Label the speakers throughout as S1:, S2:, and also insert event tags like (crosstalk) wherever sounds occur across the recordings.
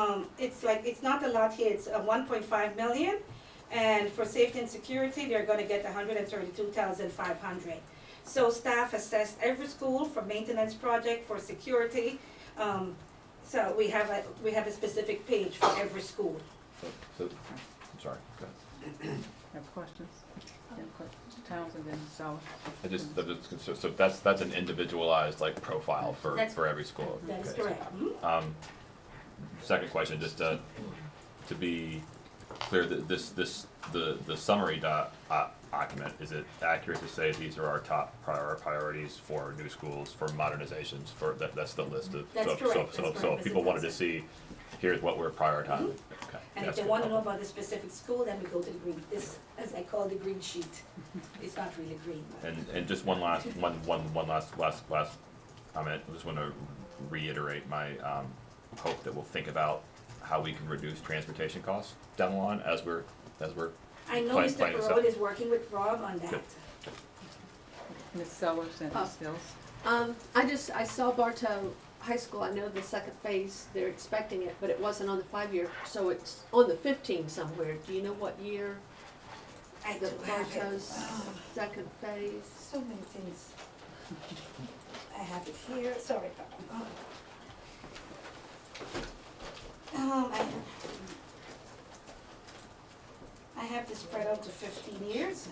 S1: Um, it's like, it's not a lot here, it's uh one point five million. And for safety and security, they're gonna get hundred and thirty-two thousand five hundred. So staff assessed every school for maintenance project, for security. Um, so we have a, we have a specific page for every school.
S2: So, I'm sorry, go ahead.
S3: Have questions? Yeah, questions. Townsend and Sauer.
S2: I just, that it's, so- so that's, that's an individualized like profile for,
S1: That's-
S2: for every school.
S1: That is
S2: Okay.
S1: correct. Mhm.
S2: Um, second question, just to, to be clear, that this, this, the, the summary doc, uh, document, is it accurate to say these are our top prior priorities for new schools, for modernizations, for, that, that's the list of,
S1: That's
S2: so, so,
S1: correct,
S2: so,
S1: that's
S2: so
S1: correct, Mm-hmm.
S2: if people
S1: that's
S2: wanted to see, here's what we're prioritizing, okay.
S1: And if
S2: that's
S1: they
S2: good.
S1: wanna know about the specific school, then we go to the green, this, as I call the green
S2: (laughs)
S1: sheet. It's not really green, but.
S2: And, and just one last, one, one, one last, last, last comment, I just wanna reiterate my, um, hope that we'll think about how we can reduce transportation costs down the line as we're, as we're,
S1: I know
S2: Fine,
S1: Mr.
S2: fine, so-
S1: Perot is working with Rob on that.
S2: Good.
S3: Ms. Sellers and
S4: Oh.
S3: Ms. Hills.
S4: Um, I just, I saw Bartow High School, I know the second phase, they're expecting it, but it wasn't on the five-year, so it's on the fifteen somewhere, do you know what year
S1: I
S4: the
S1: do have it.
S4: Bartow's second phase?
S1: So many things. I have it here, sorry, Papa. Um, I, I have this spread out to fifteen years,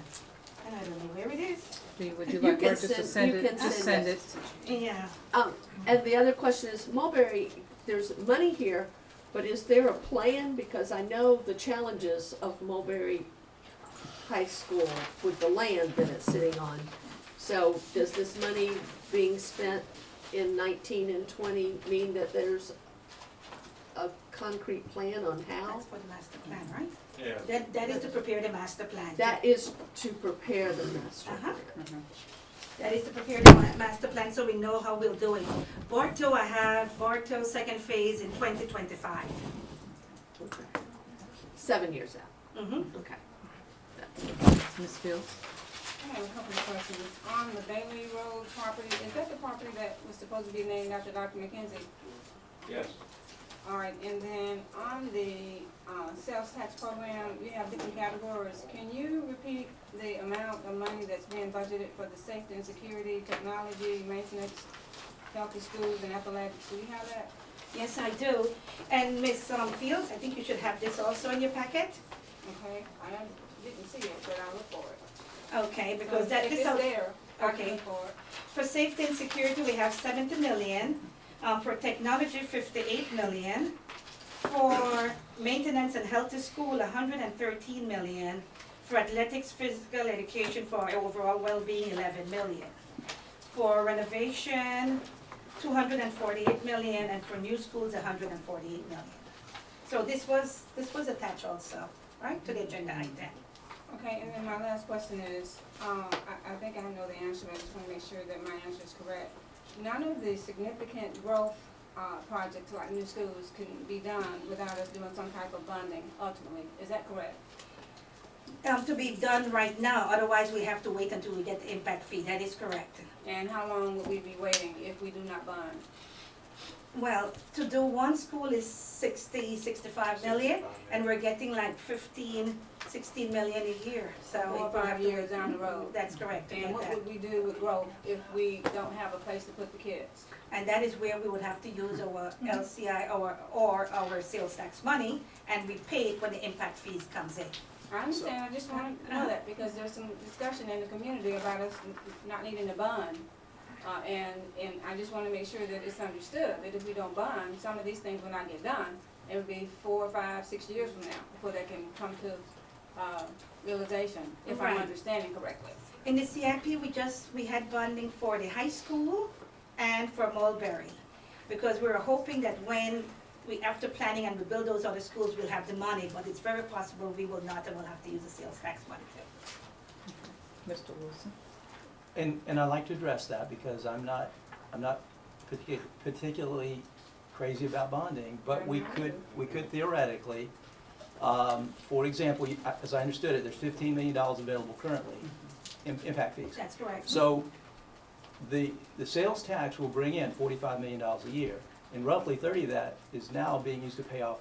S1: and I don't know where it is.
S3: Dee, would you
S4: You
S3: like
S4: can
S3: her just to
S4: send-
S3: send
S4: you
S3: it,
S4: can
S3: just send
S4: send
S3: it?
S4: it.
S1: Yeah,
S4: Um, and the other question is Mulberry, there's money here, but is there a plan, because I know the challenges of Mulberry High School with the land that it's sitting on. So does this money being spent in nineteen and twenty mean that there's a concrete plan on how?
S1: that's for the master plan, right?
S5: Yeah,
S1: That, that is to prepare the master plan.
S4: That is to prepare the master plan.
S3: Mhm.
S1: That is to prepare the ma- master plan so we know how we'll do it. Bartow, I have Bartow second phase in twenty twenty-five.
S4: Okay. Seven years out,
S1: Mm-hmm.
S4: okay.
S3: Ms. Fields?
S6: I have a couple of questions. On the Bailey Road property, is that the property that was supposed to be named after Dr. McKenzie?
S5: yes.
S6: All right, and then on the, uh, sales tax program, you have different categories. Can you repeat the amount of money that's being budgeted for the safety and security, technology, maintenance, healthy schools and athletics? Do you have that?
S1: Yes, I do. And Ms. um, Fields, I think you should have this also in your packet.
S6: Okay, I don't- didn't see it, but I'll look for it.
S1: Okay, because that,
S6: If
S1: this,
S6: it's Oh, there, I can
S1: okay.
S6: look for it.
S1: for safety and security, we have seventy million. Um, for technology, fifty-eight million. For maintenance and healthy school, hundred and thirteen million. For athletics, physical education, for our overall well-being, eleven million. For renovation, two hundred and forty-eight million, and for new schools, hundred and forty-eight million. So this was, this was attached also, right, to the agenda item.
S6: Okay, and then my last question is, um, I, I think I know the answer, but I just wanna make sure that my answer is correct. None of the significant growth, uh, projects like new schools can be done without us doing some type of bonding ultimately, is that correct?
S1: um, to be done right now, otherwise we have to wait until we get the impact fee, that is correct.
S6: And how long would we be waiting if we do not bond?
S1: Well, to do one school is sixty, sixty-five million, and we're getting like fifteen, sixteen million a year, so.
S6: Four or
S1: we
S6: five
S1: have to- Mm-hmm.
S6: years down the road.
S1: That's correct, to
S6: And
S1: get
S6: what
S1: that.
S6: would we do with growth if we don't have a place to put the kids?
S1: And that is where we would have to use our
S6: Mm-hmm.
S1: LCI or, or our sales tax money, and we pay it when the impact fees comes in.
S6: I understand, I just wanna know that, because there's some discussion in the community about us n- not needing a bond. Uh, and, and I just wanna make sure that it's understood, that if we don't bond, some of these things will not get done. It'll be four, five, six years from now, before they can come to, uh, realization, if
S1: Right.
S6: I'm understanding correctly.
S1: In the CIP, we just, we had bonding for the high school and for Mulberry. Because we were hoping that when we, after planning and we build those other schools, we'll have the money, but it's very possible we will not and we'll have to use the sales tax money too.
S3: Mr. Wilson?
S7: And, and I like to address that because I'm not, I'm not partic- particularly crazy about bonding, but we could, we could theoretically, um, for example, you- as I understood it, there's fifteen million dollars available currently in impact fees.
S1: That's correct.
S7: So the, the sales tax will bring in forty-five million dollars a year, and roughly thirty of that is now being used to pay off